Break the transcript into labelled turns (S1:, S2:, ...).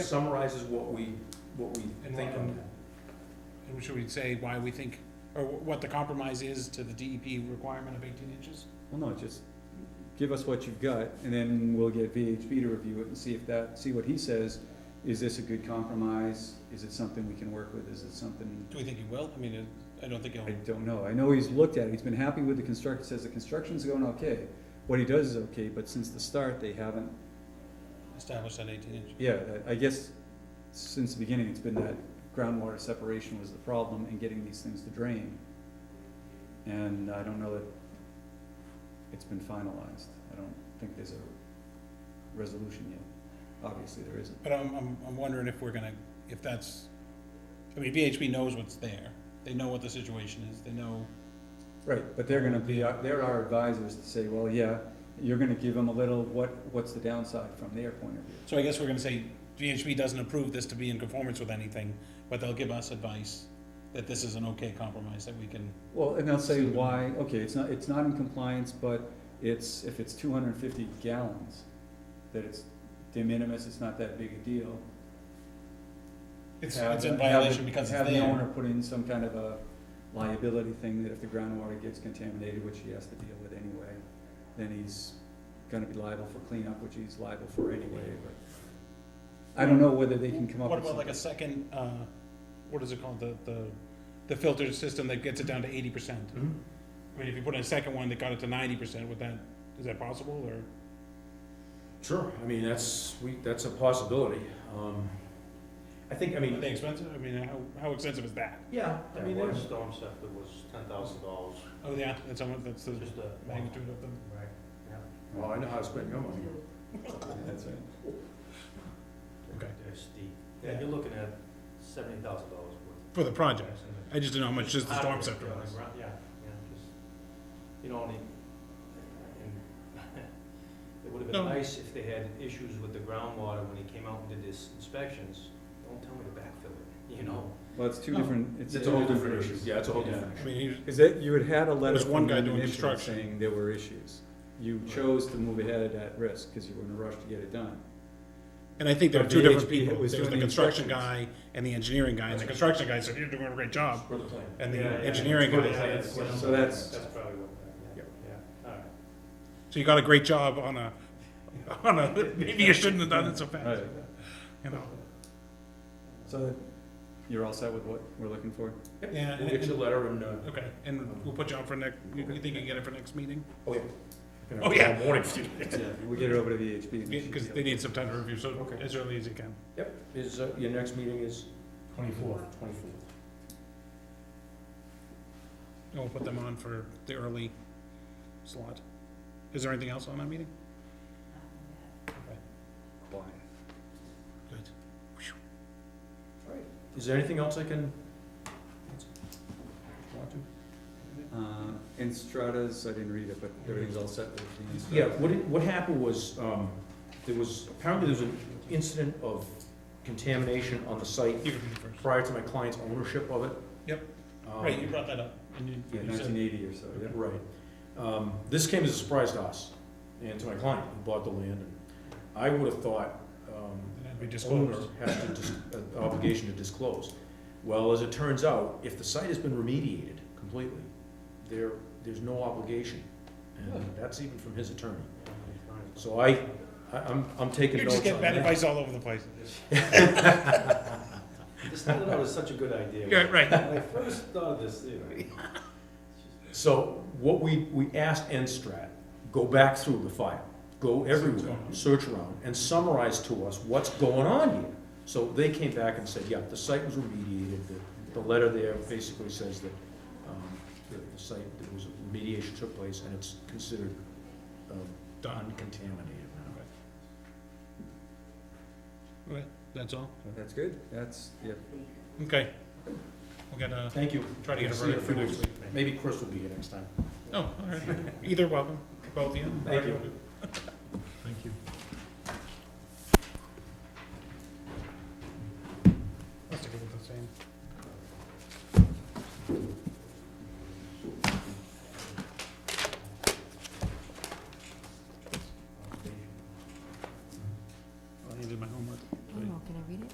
S1: summarizes what we, what we
S2: And
S1: think
S2: what-
S1: on
S2: and-
S1: that.
S2: And should we say why we think, or wh- what the compromise is to the DEP requirement of eighteen inches?
S3: Well, no, just give us what you've got, and then we'll get VHB to review it and see if that, see what he says. Is this a good compromise? Is it something we can work with? Is it something,
S2: Do we think it will? I mean, it- I don't think
S3: I
S2: it'll,
S3: don't know. I know he's looked at it. He's been happy with the construction, says the construction's going okay. What he does is okay, but since the start, they haven't,
S2: establish that eighteen inch.
S3: yeah, I I guess since the beginning, it's been that groundwater separation was the problem in getting these things to drain. And I don't know that it's been finalized. I don't think there's a resolution yet. Obviously, there isn't.
S2: But I'm, I'm, I'm wondering if we're gonna, if that's, I mean, VHB knows what's there. They know what the situation is. They know,
S3: Right, but they're gonna be, our- they're our advisors to say, well, yeah, you're gonna give them a little, what, what's the downside from their point of view?
S2: so I guess we're gonna say VHB doesn't approve this to be in conformance with anything, but they'll give us advice that this is an okay compromise that we can,
S3: Well, and they'll say why, okay, it's not, it's not in compliance, but it's, if it's two hundred and fifty gallons, that it's de minimis, it's not that big a deal.
S2: it's,
S3: Have
S2: it's
S3: the-
S2: in
S3: have the-
S2: violation because it's
S3: Have the
S2: there.
S3: owner put in some kind of a liability thing that if the groundwater gets contaminated, which he has to deal with anyway, then he's gonna be liable for cleanup, which he's liable for anyway, but I don't know whether they can come up
S2: What
S3: with
S2: about like
S3: something.
S2: a second, uh, what is it called, the, the, the filter system that gets it down to eighty percent? I mean, if you put in a second one that got it to ninety percent, would that, is that possible, or?
S1: Sure, I mean, that's, we, that's a possibility. Um, I think, I
S2: Are
S1: mean,
S2: they expensive? I mean, how, how expensive is that?
S1: yeah, I
S4: That
S1: mean,
S4: one
S1: there's,
S4: storm scepter was ten thousand dollars,
S2: Oh, yeah, that's how much, that's the
S4: just a.
S2: magnitude of them.
S4: Right, yeah.
S1: well, I know how to spend your money.
S3: That's right.
S2: Okay.
S4: They're steep. Yeah, you're looking at seventy thousand dollars worth.
S2: For the project, I just didn't know how much just the storm
S4: Hardware,
S2: scepter
S4: Ah, yeah,
S2: was.
S4: like, right, Yeah, yeah, just, you know, and, it- and it would've been
S2: No.
S4: nice if they had issues with the groundwater when he came out and did his inspections. Don't tell me to backfill it, you know?
S3: Well, it's two
S2: No.
S3: different, it's.
S1: It's a whole
S3: two
S1: different issue,
S3: things.
S1: yeah, it's a whole
S3: Yeah.
S1: different
S2: I
S1: issue.
S2: mean, he was,
S3: Is that you had had a letter
S2: There's one
S3: from
S2: guy
S3: them
S2: doing
S3: initially
S2: construction.
S3: saying there were issues. You chose to move ahead at that risk because you were in a rush to get it done.
S2: and I think there were
S3: But
S2: two
S3: the
S2: different
S3: HP
S2: people.
S3: was
S2: There was the
S3: doing the
S2: construction guy
S3: inspections.
S2: and the engineering guy, and the construction guy said, you're doing a great job.
S1: For the plan.
S2: And the
S4: Yeah, yeah,
S2: engineering
S4: yeah,
S2: guy
S4: yeah,
S2: said,
S4: that's-
S3: So that's-
S4: That's probably what, yeah, yeah, all right.
S2: so you got a great job on a, on a, maybe you shouldn't have done it so fast,
S3: Right.
S2: you know?
S3: So you're all set with what we're looking for?
S2: Yeah,
S1: We'll get you a letter and, uh,
S2: Okay, and we'll put you on for next, you you think you can get it for next meeting?
S1: oh, yeah.
S2: Oh, yeah.
S1: Morning, if you-
S3: We'll get it over to VHB. and they should
S2: Because
S3: be
S2: they
S3: able-
S2: need some time to review, so
S1: Okay.
S2: as early as you can.
S1: Yep, is, uh, your next meeting is? Twenty-fourth. Twenty-fourth.
S2: And we'll put them on for the early slot. Is there anything else on that meeting?
S3: Quiet.
S2: Good.
S1: All right, is there anything else I can? Want to?
S3: Uh, and Stratas, I didn't read it, but everything's all set with the.
S1: Yeah, what, it- what happened was, um, there was, apparently there was an incident of contamination on the site
S2: You can be first.
S1: prior to my client's ownership of it.
S2: Yep.
S1: Um,
S2: Right, you brought that up. And you,
S3: Yeah,
S2: you said,
S3: nineteen eighty or so, yeah.
S1: Right. Um, this came as a surprise to us and to my client who bought the land. And I would have thought, um,
S2: and we
S1: the
S2: disclosed.
S1: owner has to, dis- an obligation to disclose. Well, as it turns out, if the site has been remediated completely, there, there's no obligation. And that's even from his attorney. So I, I- I'm, I'm taking
S2: You're
S1: notes
S2: just
S1: on that.
S2: getting bad advice all over the place.
S4: This started out as such a good idea.
S2: Yeah, right.
S4: When I first thought of this, you know,
S1: So what we, we asked NSTRAT, go back through the file, go everywhere, search around, and summarize to us what's going on here. So they came back and said, yeah, the site was remediated, the, the letter there basically says that, um, the, the site, there was, remediation took place, and it's considered, um,
S2: Done.
S1: uncontaminated now.
S2: Okay, That's all.
S3: That's good, that's, yeah.
S2: Okay. We'll get a,
S1: Thank you.
S2: try to get a
S1: See you in
S2: verdict for
S1: few
S2: next
S1: weeks.
S2: week.
S1: Maybe Chris will be here next time.
S2: Oh, all right. Either welcome, both of you.
S1: Thank you.
S2: Thank you. That's a good, the same.